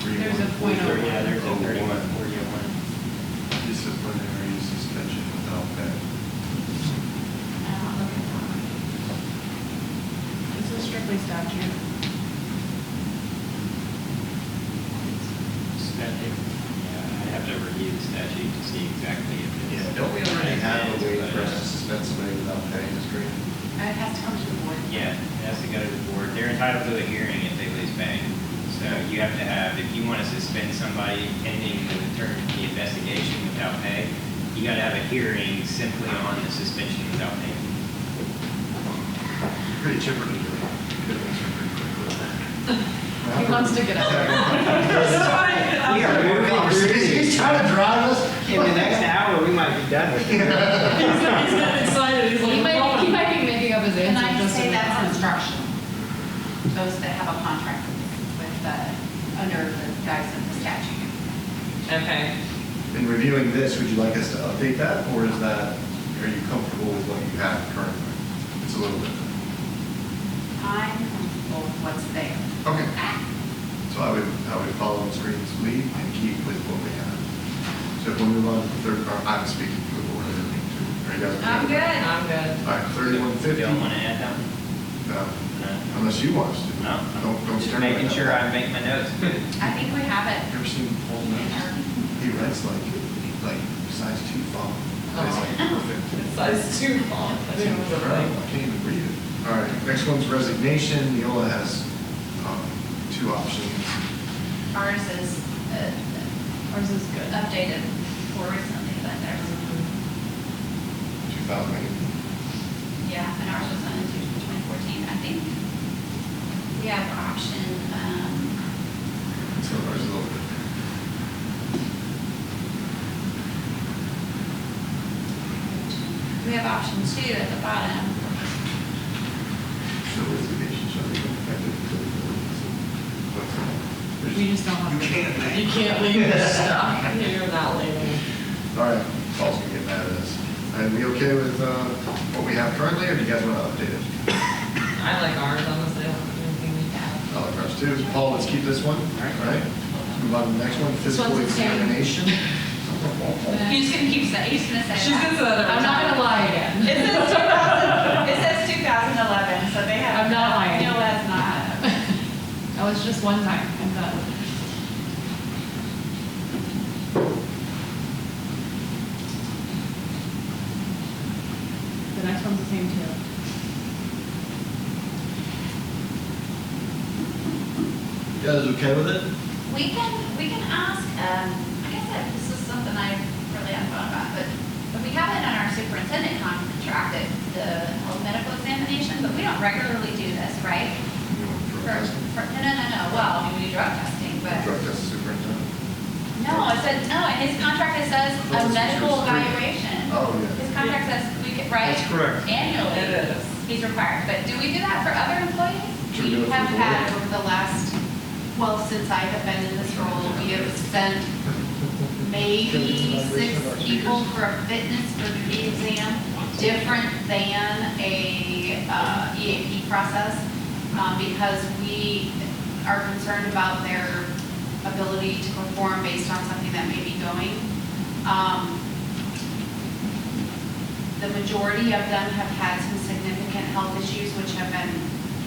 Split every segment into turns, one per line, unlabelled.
Point oh one.
Yeah, there's a thirty-one, forty oh one.
Disciplinary suspension without pay.
This is strictly statute.
Statute, yeah, I'd have to review the statute to see exactly if it's.
Yeah, don't we already have a way
But,
for us to
uh,
suspend somebody without pay in this grade?
And it has to come to the board.
Yeah, it has to go to the board. They're entitled to a hearing if they lose pay. So you have to have, if you want to suspend somebody pending the term, the investigation without pay, you got to have a hearing simply on the suspension without pay.
Pretty chipper to do it. Could have answered pretty quickly.
He wants to get out there.
We are moving through
He's trying to drive us.
In the next hour, we might be done with it.
He's not excited, he's
He
like.
might, he might be making up his answer.
And I
just in
say that's
time.
instructional. Those that have a contract with the, under the guise of the statute.
Okay,
In reviewing this, would you like us to update that, or is that, are you comfortable with what you have currently? It's a little bit.
I'm comfortable with what's there.
Okay. So I would, I would follow the screen's lead and keep with what we have. So if we move on to the third, part, I'm speaking to the board, I don't need to. Are you guys? okay?
I'm good.
I'm good.
All right, thirty-one fifty. Uh,
Don't want to add that one? No.
Unless you want us to.
No?
Don't, don't.
Just
stare at
making
that.
sure I make my notes good.
I think we have it.
You ever seen Paul Ness? He writes like, like size two font. It's like perfect.
It's size two font. I think it was a thing.
I can't even read it. All right, next one's resignation. Neola has um, two options.
Ours is uh,
Ours is good.
updated more recently than theirs.
2000,
Yeah, and ours was done in 2014, I think. We have option, um,
so ours is a little bit.
we have option two at the bottom.
So resignation shall be effective until the board.
We just don't have.
You can't
You
make.
can't leave this stuff, you're not leaving.
All right, Paul's gonna get mad at us. Are we okay with uh, what we have currently, or do you guys want to update it?
I like ours, honestly, I don't think anything we have.
I like ours too. Paul, let's keep this one, all right? Move on to the next one, physical
one's okay.
examination.
He's gonna keep saying, he's gonna say
She's gonna say
that.
that
I'm not gonna lie again.
It says 2000, it says 2011, so they have.
I'm not lying.
No, that's not.
That was just one time, I'm done. The next one's the same too.
You guys okay with it?
We can, we can ask, um, I guess that this is something I really haven't thought about, but, but we have it on our superintendent contract, that the health medical examination, but we don't regularly do this, right?
You want to
For,
throw this?
for, no, no, no, no, well, we do drug testing, but,
Drug test superintendent.
no, it says, no, in his contract, it says a
That's what
medical
yours is.
evaluation.
Oh, yeah.
His contract says we get, right?
That's correct.
Annually.
It is.
He's required, but do we do that for other employees?
Should we do it for
have
the
had
board?
over the last, well, since I have been in this role, we have sent maybe six people for a fitness exam, different than a uh, EAP process, um, because we are concerned about their ability to perform based on something that may be going. Um, the majority of them have had some significant health issues which have been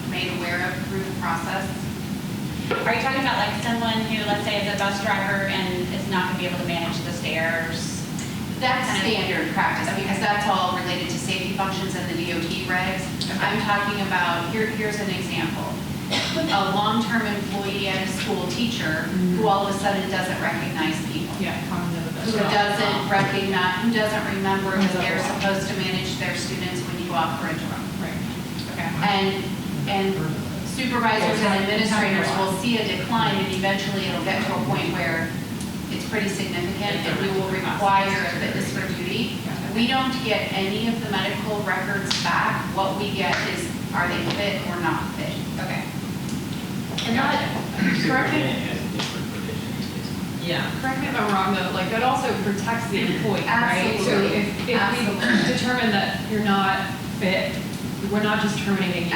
made aware of through the process. Are you talking about like someone who, let's say, is a bus driver and is not going to be able to manage the stairs? That's standard practice, because that's all related to safety functions and the DOT regs. I'm talking about, here, here's an example. A long-term employee at a school teacher who all of a sudden doesn't recognize people
Yeah, cognitive.
who doesn't recognize, who doesn't remember that they're supposed to manage their students when you offer a drum.
Right.
And, and supervisors and administrators will see a decline and eventually it'll get to a point where it's pretty significant and we will require a fitness for duty. We don't get any of the medical records back. What we get is, are they fit or not fit? Okay. And that, correct me,
Superintendent has a different provision.
Yeah.
Correct me if I'm wrong though, like that also protects the employee, right? So
Absolutely.
if, if we
Absolutely.
determine that you're not fit, we're not just terminating you.